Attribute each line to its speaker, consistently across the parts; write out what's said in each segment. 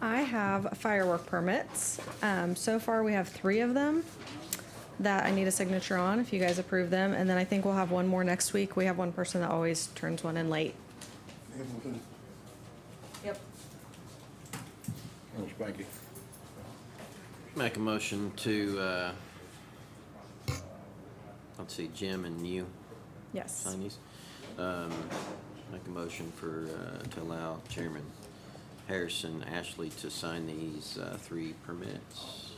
Speaker 1: I have firework permits. Um, So far, we have three of them that I need a signature on if you guys approve them. And then I think we'll have one more next week. We have one person that always turns one in late.
Speaker 2: Hamilton,
Speaker 1: Yep.
Speaker 2: oh, Spanky.
Speaker 3: Make a motion to, uh, let's see, Jim and you,
Speaker 1: Yes.
Speaker 3: signees. Um, make a motion for, uh, to allow Chairman Harrison Ashley to sign these, uh, three permits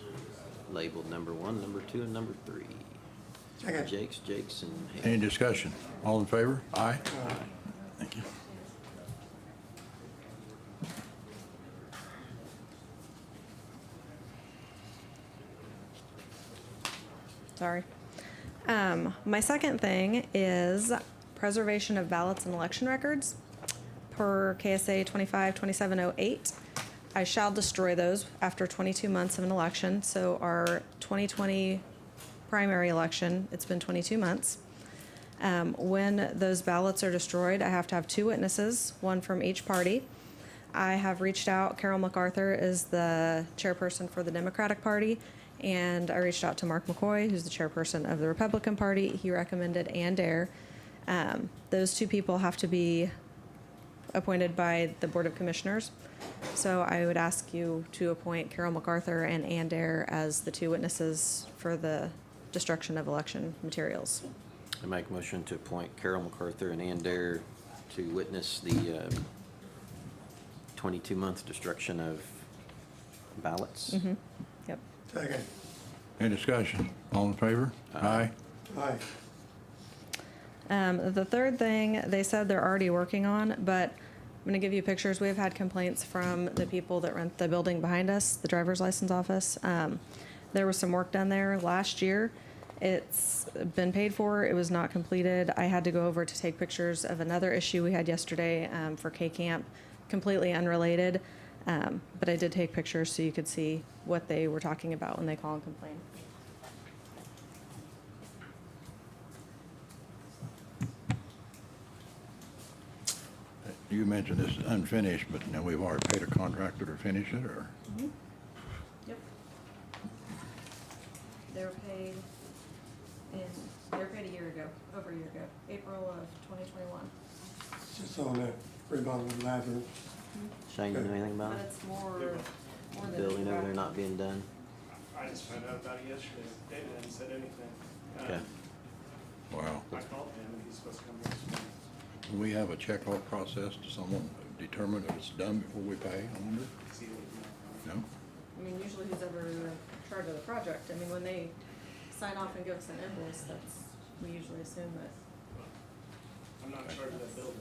Speaker 3: labeled number one, number two, and number three.
Speaker 2: Second.
Speaker 3: Jake's, Jake's, and
Speaker 2: Any
Speaker 3: Hayes.
Speaker 2: discussion? All in favor? Aye. Thank you.
Speaker 1: Sorry. Um, my second thing is preservation of ballots and election records per KSA 252708. I shall destroy those after 22 months of an election. So our 2020 primary election, it's been 22 months. Um, when those ballots are destroyed, I have to have two witnesses, one from each party. I have reached out, Carol MacArthur is the chairperson for the Democratic Party, and I reached out to Mark McCoy, who's the chairperson of the Republican Party. He recommended Ann Dare. Um, those two people have to be appointed by the Board of Commissioners. So I would ask you to appoint Carol MacArthur and Ann Dare as the two witnesses for the destruction of election materials.
Speaker 3: I make a motion to appoint Carol MacArthur and Ann Dare to witness the, um, twenty-two month destruction of ballots.
Speaker 1: Yep.
Speaker 4: Second.
Speaker 2: Any discussion? All in favor? Aye.
Speaker 4: Aye.
Speaker 1: Um, the third thing they said they're already working on, but I'm gonna give you pictures. We've had complaints from the people that rent the building behind us, the driver's license office. Um, there was some work done there last year. It's been paid for. It was not completed. I had to go over to take pictures of another issue we had yesterday um, for K Camp, completely unrelated. Um, but I did take pictures so you could see what they were talking about when they call and complain.
Speaker 2: You mentioned this is unfinished, but now we've already paid a contractor to finish it, or?
Speaker 1: Yep. They were paid in, they were paid a year ago, over a year ago, April of twenty twenty-one.
Speaker 4: Just on the remodel of the bathroom.
Speaker 3: Shane, you know anything about
Speaker 1: But
Speaker 3: it?
Speaker 1: it's more, more than.
Speaker 3: Building over there not being done?
Speaker 5: I just found out about it yesterday. David hadn't said anything.
Speaker 3: Okay.
Speaker 5: Um,
Speaker 2: Wow.
Speaker 5: I called him and he's supposed to come next week.
Speaker 2: Do we have a checkoff process to someone determine if it's done before we pay, I wonder?
Speaker 5: See what he-
Speaker 2: No?
Speaker 1: I mean, usually who's ever in charge of the project, I mean, when they sign off and give us an invoice, that's, we usually assume that.
Speaker 5: I'm not in charge of that building.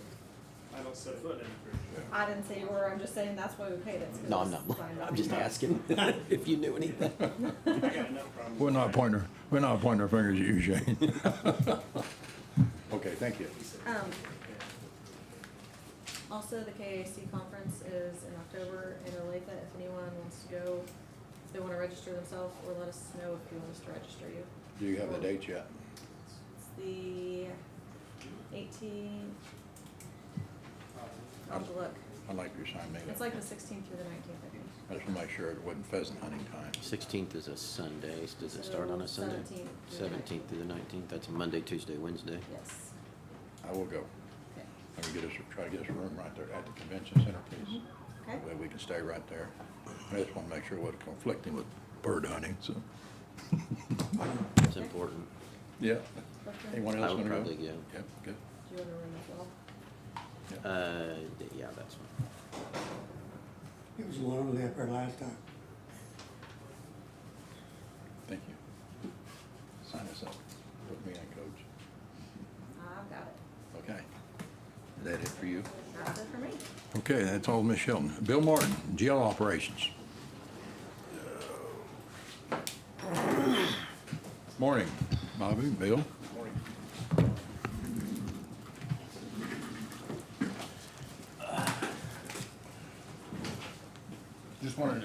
Speaker 5: I don't set foot in it.
Speaker 1: I didn't say you were, I'm just saying that's why we paid it. it's 'cause
Speaker 3: No, I'm
Speaker 1: it's
Speaker 3: not.
Speaker 1: signed
Speaker 3: I'm
Speaker 1: off.
Speaker 3: just asking if you knew anything.
Speaker 5: I got enough problems.
Speaker 2: We're not pointing, our- we're not pointing our fingers at you, Shane. Okay, thank you.
Speaker 1: Um, Also, the KAC conference is in October in Olathe. If anyone wants to go, if they want to register themselves, or let us know if you want us to register you.
Speaker 2: Do you have the dates yet?
Speaker 1: It's the eighteenth. I'll have to look.
Speaker 2: I'd like you to sign me.
Speaker 1: It's like the sixteenth through the nineteenth, I think.
Speaker 2: I just want to make sure it wasn't pheasant hunting time.
Speaker 3: Sixteenth is a Sunday. Does it start on a
Speaker 1: So,
Speaker 3: Sunday?
Speaker 1: 17th through the
Speaker 3: Seventeenth through the nineteenth. That's a Monday, Tuesday, Wednesday.
Speaker 1: Yes.
Speaker 2: I will go.
Speaker 1: Okay.
Speaker 2: I can get us, try to get us a room right there at the convention center, please.
Speaker 1: Mm-hmm. Okay.
Speaker 2: That way we can stay right there. I just want to make sure it wasn't conflicting with bird hunting, so.
Speaker 3: It's important.
Speaker 2: Yeah.
Speaker 1: Clifton, Do
Speaker 2: Anyone
Speaker 3: I
Speaker 2: else
Speaker 3: would
Speaker 2: want to go?
Speaker 3: probably go.
Speaker 2: Yep, good.
Speaker 1: you want to ring the bell?
Speaker 3: Uh, d- yeah, that's fine.
Speaker 4: It was lonely up there last time.
Speaker 2: Thank you. Sign us up. Put me on, coach.
Speaker 1: I've got it.
Speaker 2: Okay. Is that it for you?
Speaker 1: That's it for me.
Speaker 2: Okay, that's all, Miss Shelton. Bill Martin, jail operations. Morning, Bobby, Bill. Just wanted to